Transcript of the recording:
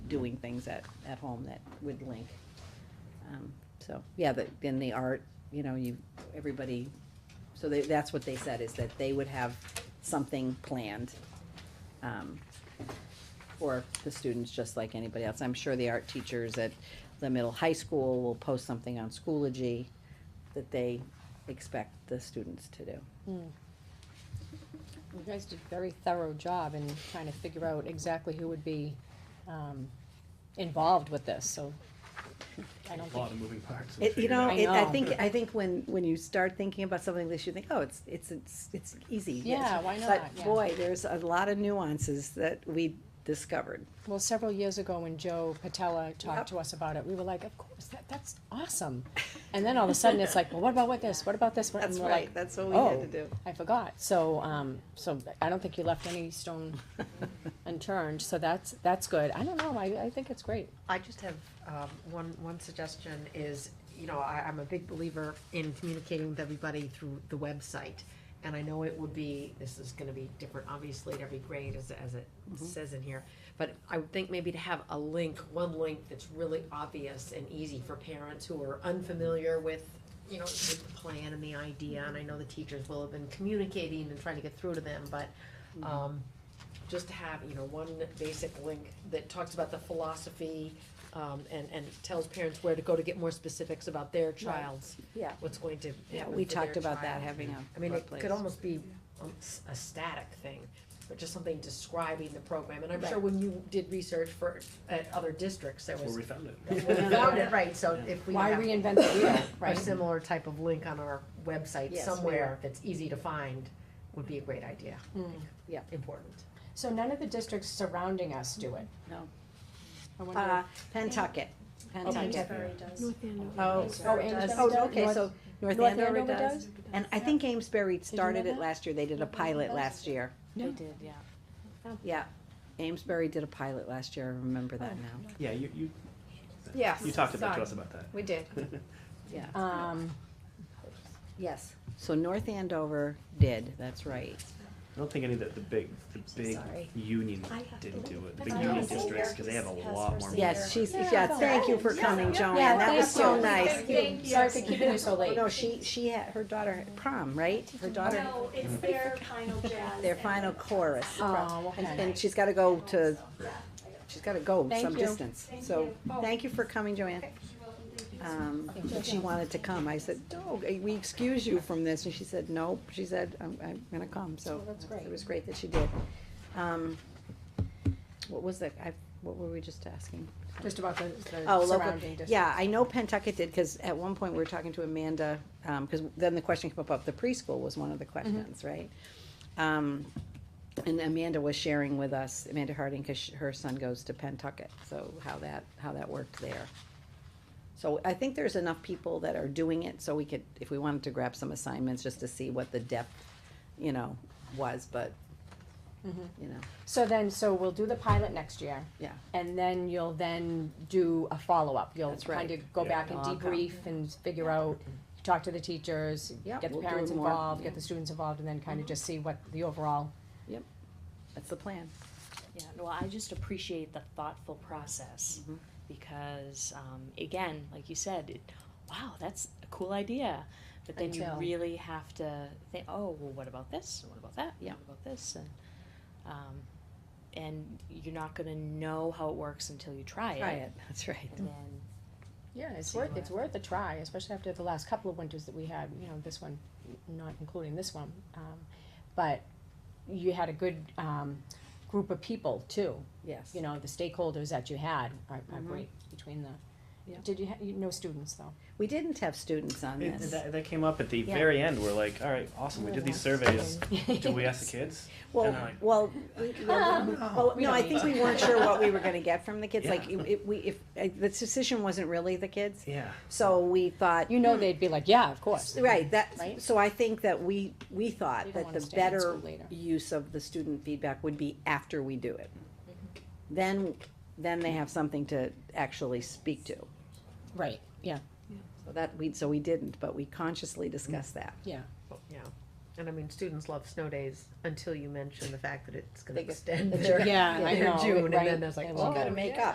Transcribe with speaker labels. Speaker 1: doing things at, at home that would link. Um, So, yeah, the, then the art, you know, you, everybody, so they, that's what they said, is that they would have something planned. um, For the students, just like anybody else. I'm sure the art teachers at the middle high school will post something on Schoology that they expect the students to do.
Speaker 2: You guys did a very thorough job in trying to figure out exactly who would be, um, involved with this, so I don't
Speaker 3: A lot
Speaker 2: think,
Speaker 3: of moving parts. to
Speaker 1: It, you
Speaker 3: figure
Speaker 1: know,
Speaker 3: out.
Speaker 2: I
Speaker 1: it, I
Speaker 2: know.
Speaker 1: think, I think when, when you start thinking about something like this, you think, oh, it's, it's, it's, it's easy. yes.
Speaker 2: Yeah, why not?
Speaker 1: But
Speaker 2: Yeah.
Speaker 1: boy, there's a lot of nuances that we discovered.
Speaker 2: well, several years ago when Joe Patella talked
Speaker 1: Yep.
Speaker 2: to us about it, we were like, of course, that, that's awesome. And then all of a sudden, it's like, well, what about what this, what about this, what, and
Speaker 1: That's
Speaker 2: we're like,
Speaker 1: right, that's what we had
Speaker 2: oh.
Speaker 1: to do.
Speaker 2: I forgot, so, um, so I don't think you left any stone unturned, so that's, that's good, I don't know, I, I think it's great.
Speaker 4: I just have, um, one, one suggestion is, you know, I, I'm a big believer in communicating with everybody through the website. And I know it would be, this is gonna be different, obviously, at every grade, as, as it says in here. But I would think maybe to have a link, one link that's really obvious and easy for parents who are unfamiliar with, you know, with the plan and the idea. And I know the teachers will have been communicating and trying to get through to them, but,
Speaker 1: Mm-hmm.
Speaker 4: um, just to have, you know, one basic link that talks about the philosophy, um, and, and tells parents where to go to get more specifics about their child's,
Speaker 1: Yeah.
Speaker 4: what's going to
Speaker 1: Yeah,
Speaker 4: happen
Speaker 1: we
Speaker 4: for their
Speaker 1: talked about that,
Speaker 4: child.
Speaker 1: having a
Speaker 4: I mean, it
Speaker 1: workplace.
Speaker 4: could almost be um, s- a static thing, but just something describing the program, and I'm sure
Speaker 1: Right.
Speaker 4: when you did research for, at other districts, there
Speaker 3: That's where
Speaker 4: was.
Speaker 3: we found it.
Speaker 4: that's where we found it, right, so if we
Speaker 2: Why
Speaker 4: have
Speaker 2: reinvent the wheel,
Speaker 4: a
Speaker 2: right?
Speaker 4: similar type of link on our website
Speaker 1: Yes, we will.
Speaker 4: somewhere that's easy to find, would be a great idea. I
Speaker 2: Mm.
Speaker 4: think.
Speaker 1: Yeah.
Speaker 4: Important.
Speaker 2: So none of the districts surrounding us do it?
Speaker 1: No.
Speaker 2: I wonder-
Speaker 1: Uh, Pentucket, Pentucket.
Speaker 5: Amesbury does.
Speaker 6: North Andover.
Speaker 4: Oh,
Speaker 2: Oh,
Speaker 5: Amesbury
Speaker 2: Amesbury
Speaker 5: does.
Speaker 1: Oh, okay,
Speaker 2: North-
Speaker 1: so North
Speaker 2: North
Speaker 1: Andover
Speaker 2: Andover
Speaker 1: does.
Speaker 2: does?
Speaker 1: And I think Amesbury
Speaker 2: you
Speaker 1: started
Speaker 2: know
Speaker 1: it
Speaker 2: that?
Speaker 1: last year, they did a pilot last year.
Speaker 2: No.
Speaker 5: did, yeah.
Speaker 1: Yeah, Amesbury did a pilot last year, I remember that now.
Speaker 3: Yeah, you, you,
Speaker 4: Yes.
Speaker 3: you talked about, to us about that.
Speaker 4: We did.
Speaker 1: Yeah,
Speaker 2: Um,
Speaker 1: yes. So North Andover did, that's right.
Speaker 3: I don't think any of the, the big, the big
Speaker 4: Sorry.
Speaker 3: union
Speaker 5: I have to
Speaker 3: didn't do it, the big
Speaker 5: That's
Speaker 3: union
Speaker 5: nice.
Speaker 3: districts, cause they have a
Speaker 5: Has her
Speaker 3: lot more.
Speaker 1: Yes,
Speaker 3: moving
Speaker 1: she's,
Speaker 3: parts.
Speaker 1: yeah, thank you for coming, Joanne, that was so nice.
Speaker 5: Thank you.
Speaker 2: Sorry for keeping you so
Speaker 1: Oh,
Speaker 2: late.
Speaker 1: No, she, she had, her daughter had prom, right? Her daughter,
Speaker 5: No, it's their final jazz.
Speaker 1: their
Speaker 5: and-
Speaker 1: final chorus.
Speaker 2: Oh,
Speaker 1: And,
Speaker 2: okay.
Speaker 1: and she's gotta go to, she's gotta go
Speaker 2: Thank
Speaker 1: some
Speaker 2: you.
Speaker 1: distance.
Speaker 5: Thank
Speaker 1: So,
Speaker 5: you. Oh.
Speaker 1: thank you for coming, Joanne. Um, but she wanted to come. I said, no, we excuse you from this. And she said, nope. She said, I'm, I'm gonna come, so.
Speaker 2: Well, that's great.
Speaker 1: It was Oh, great that she did. Um, what was the, I, what were we just asking?
Speaker 2: Just about the,
Speaker 1: Oh,
Speaker 2: the
Speaker 1: local-
Speaker 2: surrounding districts.
Speaker 1: Yeah, I know Pentucket did, because at one point we were talking to Amanda, um, because then the question came up, up, the preschool was one of
Speaker 2: Mm-hmm.
Speaker 1: the questions, right? Um, and Amanda was sharing with us, Amanda Harding, because her son goes to Pentucket, so how that, how that worked there. So I think there's enough people that are doing it, so we could, if we wanted to grab some assignments, just to see what the depth, you know, was, but,
Speaker 2: Mhm.
Speaker 1: you know,
Speaker 2: So then, so we'll do the pilot next year,
Speaker 1: yeah.
Speaker 2: and then you'll then do a follow-up. You'll
Speaker 1: That's right.
Speaker 2: kind of go
Speaker 3: Yeah.
Speaker 2: back and
Speaker 1: I'll come.
Speaker 2: debrief and figure out, talk to the teachers,
Speaker 1: Yep,
Speaker 2: get the
Speaker 1: we'll do
Speaker 2: parents
Speaker 1: more.
Speaker 2: involved, get the students involved, and then kind of just see what the overall,
Speaker 1: That's the plan.
Speaker 7: Yeah, well, I just appreciate the thoughtful process
Speaker 1: Mhm.
Speaker 7: because, um, again, like you said, it, wow, that's a cool idea. But then
Speaker 2: Until-
Speaker 7: you really have to think, oh, well, what about this? What about that?
Speaker 1: Yeah.
Speaker 7: What about this? And, um, and you're not going to know how it works until you try it.
Speaker 1: Try it, Mm-hmm. that's right.
Speaker 7: And then
Speaker 2: yeah, it's
Speaker 7: See
Speaker 2: worth,
Speaker 7: what-
Speaker 2: it's worth a try, especially after the last couple of winters that we had, you know, this one, not including this one. um, But you had a good, um, group of people too,
Speaker 1: Yes.
Speaker 2: you know, the stakeholders that you had are, are
Speaker 1: Mhm.
Speaker 2: great between the,
Speaker 1: Yeah.
Speaker 2: did you, ha- you, no students though?
Speaker 1: We didn't have students on
Speaker 3: It-
Speaker 1: this.
Speaker 3: That, that came up at the
Speaker 7: Yeah.
Speaker 3: very end, we're like, alright, awesome, we did these surveys, do we ask the kids?
Speaker 1: Well,
Speaker 3: And I'm like,
Speaker 1: well, we- well, we- well,
Speaker 2: We
Speaker 1: no, I
Speaker 2: don't
Speaker 1: think we weren't sure what we were gonna get from the kids, like,
Speaker 3: Yeah.
Speaker 1: it- it- we, if, uh, the decision wasn't really the kids,
Speaker 3: Yeah.
Speaker 1: so we thought.
Speaker 2: You know they'd be like, yeah, of course.
Speaker 1: Right, that,
Speaker 2: Right?
Speaker 1: so I think that we, we
Speaker 2: You
Speaker 1: thought
Speaker 2: don't
Speaker 1: that
Speaker 2: wanna
Speaker 1: the
Speaker 2: stay in
Speaker 1: better
Speaker 2: school later.
Speaker 1: use of the student feedback would be after we do it. Then, then they have something to actually speak to,
Speaker 2: Right, yeah,
Speaker 1: so that, we, so we didn't, but we consciously discussed that.
Speaker 2: yeah.
Speaker 4: Yeah, and I mean, students love snow days until you mention the fact that it's gonna
Speaker 1: They get-
Speaker 4: extend
Speaker 1: that
Speaker 4: their,
Speaker 2: they're- Yeah, I
Speaker 4: their
Speaker 2: know,
Speaker 4: June, and
Speaker 2: right,
Speaker 4: then it's like,
Speaker 2: they
Speaker 4: oh,
Speaker 2: love it.
Speaker 1: Gotta make
Speaker 4: yeah.